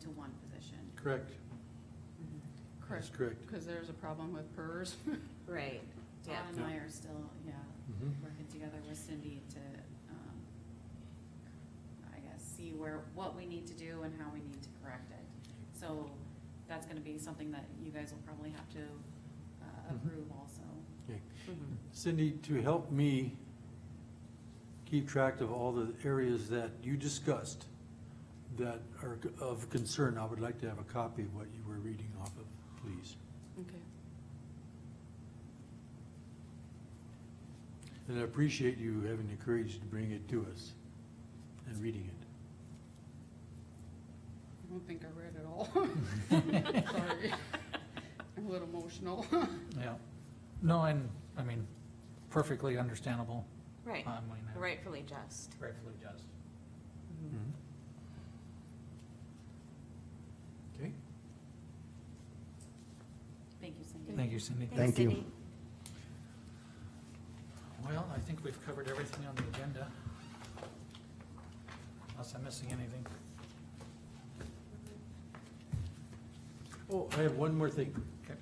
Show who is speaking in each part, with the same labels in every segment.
Speaker 1: to one position.
Speaker 2: Correct, that's correct.
Speaker 3: Because there's a problem with PERS.
Speaker 4: Right,
Speaker 1: Todd
Speaker 4: yeah.
Speaker 1: and I are still, yeah,
Speaker 2: Mhm.
Speaker 1: working together with Cindy to, um, I guess, see where, what we need to do and how we need to correct it. So that's gonna be something that you guys will probably have to, uh,
Speaker 5: Mm-hmm.
Speaker 2: Mhm.
Speaker 1: approve also.
Speaker 2: Okay.
Speaker 4: Mhm.
Speaker 2: Cindy, to help me keep track of all the areas that you discussed that are of concern, I would like to have a copy of what you were reading off of, please.
Speaker 3: Okay.
Speaker 2: And I appreciate you having the courage to bring it to us and reading it.
Speaker 3: I don't think I read it all. Sorry. I'm a little emotional.
Speaker 5: Yeah. No, and, I mean, perfectly understandable.
Speaker 4: Right,
Speaker 5: I mean, I-
Speaker 4: rightfully just.
Speaker 5: Rightfully just.
Speaker 2: Mm-hmm. Okay?
Speaker 1: Thank you, Cindy.
Speaker 5: Thank you, Cindy.
Speaker 4: Thanks,
Speaker 6: Thank you.
Speaker 4: Cindy.
Speaker 5: Well, I think we've covered everything on the agenda. Unless I'm missing anything.
Speaker 2: Oh, I have one more thing.
Speaker 5: Okay.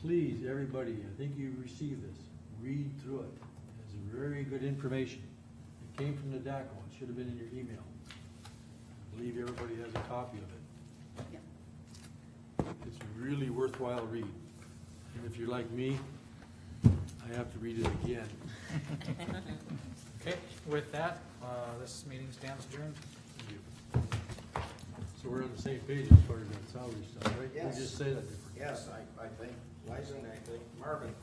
Speaker 2: Please, everybody, I think you received this, read through it. It's very good information. It came from the DACO, it should have been in your email. I believe everybody has a copy of it.
Speaker 1: Yeah.
Speaker 2: It's a really worthwhile read. And if you're like me, I have to read it again.
Speaker 5: Okay, with that, uh, this meeting stands adjourned.
Speaker 2: So we're on the same page as far as that salary stuff, right? We
Speaker 7: Yes.
Speaker 2: just say that different.
Speaker 7: Yes, I, I think Liza and I think Marvin